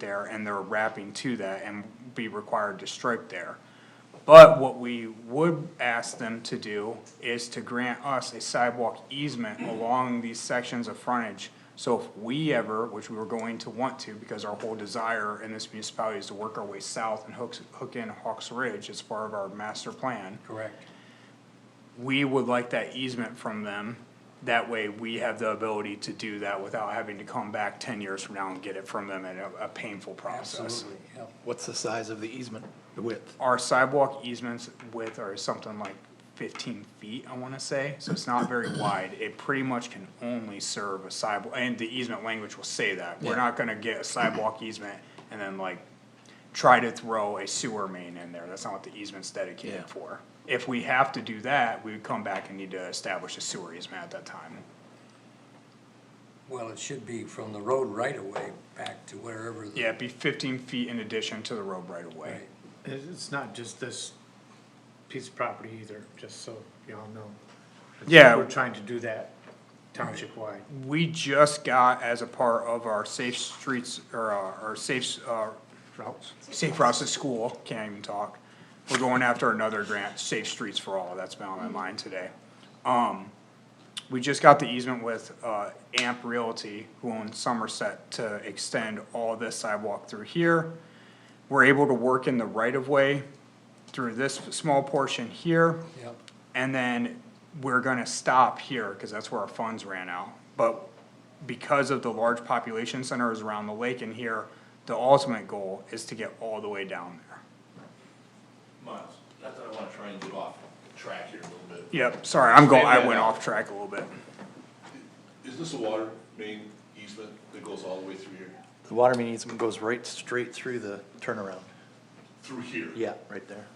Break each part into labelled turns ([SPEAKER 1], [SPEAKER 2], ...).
[SPEAKER 1] there and they're wrapping to that and be required to stripe there. But what we would ask them to do is to grant us a sidewalk easement along these sections of frontage. So if we ever, which we were going to want to, because our whole desire in this municipality is to work our way south and hook, hook in Hawks Ridge as part of our master plan
[SPEAKER 2] Correct.
[SPEAKER 1] we would like that easement from them. That way, we have the ability to do that without having to come back ten years from now and get it from them in a, a painful process.
[SPEAKER 2] Absolutely, yeah.
[SPEAKER 3] What's the size of the easement, the width?
[SPEAKER 1] Our sidewalk easements width are something like fifteen feet, I wanna say, so it's not very wide. It pretty much can only serve a sidewalk, and the easement language will say that. We're
[SPEAKER 3] Yeah.
[SPEAKER 1] not gonna get a sidewalk easement and then like try to throw a sewer main in there. That's not what the easement's
[SPEAKER 3] Yeah.
[SPEAKER 1] dedicated for. If we have to do that, we would come back and need to establish a sewer easement at that time.
[SPEAKER 2] Well, it should be from the road right away back to wherever. the-
[SPEAKER 1] Yeah, it'd be fifteen feet in addition to the road right away.
[SPEAKER 2] Right.
[SPEAKER 4] It- It's not just this piece of property either, just so y'all know. I think
[SPEAKER 1] Yeah.
[SPEAKER 4] We're trying to do that township-wide.
[SPEAKER 1] We just got as a part of our safe streets, or uh, our safe, uh,
[SPEAKER 4] Routes.
[SPEAKER 1] safe routes to school, can't even talk. We're going after another grant, Safe Streets for All, that's been on my mind today. Um, we just got the easement with, uh, Amp Realty, who owns Somerset, to extend all this sidewalk through here. We're able to work in the right-of-way through this small portion here.
[SPEAKER 2] Yep,
[SPEAKER 1] And then we're gonna stop here, cause that's where our funds ran out. But because of the large population centers around the lake and here, the ultimate goal is to get all the way down there.
[SPEAKER 5] Miles, not that I wanna try and get off track here a little bit.
[SPEAKER 1] Yep, sorry, I'm going, I
[SPEAKER 5] Maybe
[SPEAKER 1] went
[SPEAKER 5] I-
[SPEAKER 1] off track a little bit.
[SPEAKER 5] Is this a water main easement that goes all the way through here?
[SPEAKER 3] The water main easement goes right straight through the turnaround.
[SPEAKER 5] Through here?
[SPEAKER 3] Yeah, right there.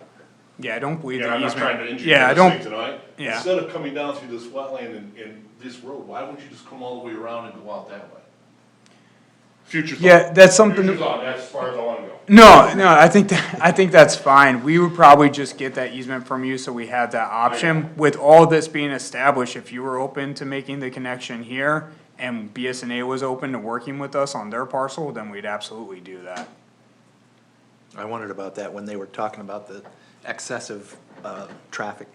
[SPEAKER 1] Yeah, I don't believe
[SPEAKER 5] Yeah,
[SPEAKER 1] the
[SPEAKER 5] I'm not trying
[SPEAKER 1] easement.
[SPEAKER 5] to injure
[SPEAKER 1] Yeah, I
[SPEAKER 5] this thing
[SPEAKER 1] don't,
[SPEAKER 5] tonight.
[SPEAKER 1] yeah.
[SPEAKER 5] Instead of coming down through this wetland and, and this road, why wouldn't you just come all the way around and go out that way? Future thought.
[SPEAKER 1] yeah, that's something.
[SPEAKER 5] Future thought, that's as far as I wanna go.
[SPEAKER 1] No, no, I think, that- I think that's fine. We would probably just get that easement from you, so we have that option. With all this being established, if you were open to making the connection here and BSNA was open to working with us on their parcel, then we'd absolutely do that.
[SPEAKER 3] I wondered about that when they were talking about the excessive, uh, traffic.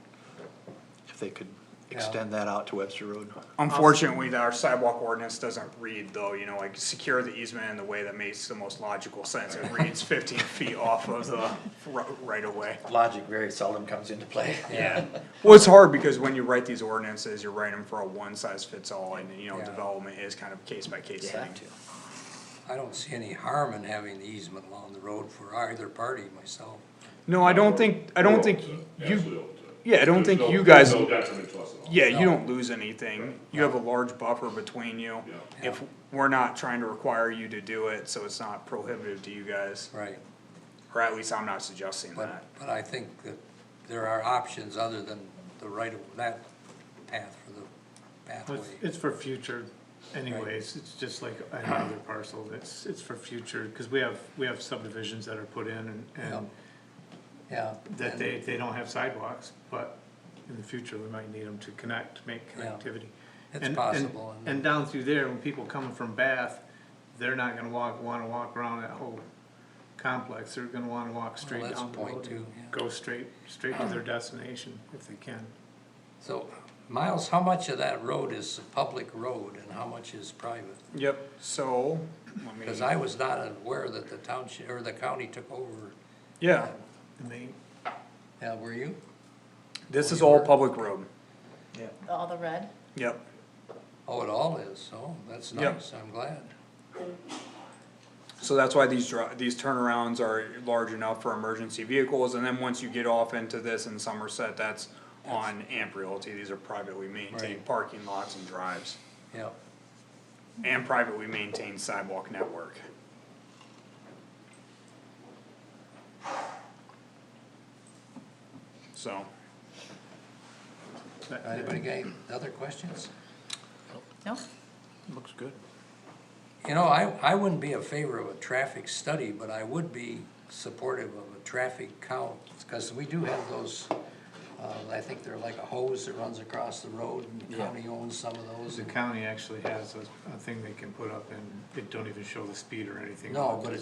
[SPEAKER 3] If they could extend that out to Webster Road.
[SPEAKER 1] Unfortunately, our sidewalk ordinance doesn't read though, you know, like secure the easement in the way that makes the most logical sense. It reads fifteen feet off of the ro- right of way.
[SPEAKER 3] Logic very seldom comes into play.
[SPEAKER 2] yeah,
[SPEAKER 1] Well, it's hard because when you write these ordinances, you're writing them for a one size fits all and, you know,
[SPEAKER 2] Yeah.
[SPEAKER 1] development is kind of case by case
[SPEAKER 3] You
[SPEAKER 1] thing.
[SPEAKER 3] have to.
[SPEAKER 2] I don't see any harm in having the easement along the road for either party myself.
[SPEAKER 1] No, I don't think, I don't think
[SPEAKER 5] Absolutely
[SPEAKER 1] you,
[SPEAKER 5] open to it.
[SPEAKER 1] yeah, I don't
[SPEAKER 5] There's
[SPEAKER 1] think
[SPEAKER 5] no-
[SPEAKER 1] you guys-
[SPEAKER 5] there's no detriment to us at all.
[SPEAKER 1] yeah, you
[SPEAKER 2] No.
[SPEAKER 1] don't lose anything. You have a large buffer between you.
[SPEAKER 5] Yeah.
[SPEAKER 1] If, we're not trying to require you to do it, so it's not prohibitive to you guys,
[SPEAKER 2] Right.
[SPEAKER 1] or at least I'm not suggesting that.
[SPEAKER 2] But, but I think that there are options other than the right of, that path for the
[SPEAKER 4] It's,
[SPEAKER 2] pathway.
[SPEAKER 4] it's for future anyways, it's just like any other parcel, it's, it's for future, cause we have, we have subdivisions that are put in and, and
[SPEAKER 2] Yeah.
[SPEAKER 4] that
[SPEAKER 2] and-
[SPEAKER 4] they, they don't have sidewalks, but in the future, we might need them to connect, make
[SPEAKER 2] Yeah.
[SPEAKER 4] connectivity.
[SPEAKER 2] It's
[SPEAKER 4] And- and-
[SPEAKER 2] possible, and-
[SPEAKER 4] And down through there, when people coming from Bath, they're not gonna walk, wanna walk around that whole complex, they're gonna wanna walk straight
[SPEAKER 2] that's
[SPEAKER 4] down the
[SPEAKER 2] a point
[SPEAKER 4] road and
[SPEAKER 2] too, yeah.
[SPEAKER 4] go straight, straight to their destination if they can.
[SPEAKER 2] So, Miles, how much of that road is a public road and how much is private?
[SPEAKER 1] Yep, so, let me,
[SPEAKER 2] Cause I was not aware that the township, or the county took over.
[SPEAKER 1] yeah,
[SPEAKER 4] And they,
[SPEAKER 2] Yeah, were you?
[SPEAKER 1] this is all public road.
[SPEAKER 6] All the red?
[SPEAKER 1] Yep,
[SPEAKER 2] Oh, it all is, oh, that's
[SPEAKER 1] Yeah.
[SPEAKER 2] nice, I'm glad.
[SPEAKER 1] so that's why these dri- these turnarounds are large enough for emergency vehicles, and then once you get off into this in Somerset, that's on Amp Realty, these are privately maintained
[SPEAKER 2] Right.
[SPEAKER 1] parking lots and drives.
[SPEAKER 2] Yeah,
[SPEAKER 1] And privately maintained sidewalk network. So,
[SPEAKER 4] that-
[SPEAKER 2] anybody got any other questions?
[SPEAKER 6] No?
[SPEAKER 3] Looks good.
[SPEAKER 2] You know, I, I wouldn't be a favor of a traffic study, but I would be supportive of a traffic count, because we do have those, uh, I think they're like a hose that runs across the road, and the county owns some of those.
[SPEAKER 4] The county actually has a, a thing they can put up and they don't even show the speed or anything.
[SPEAKER 2] No, but it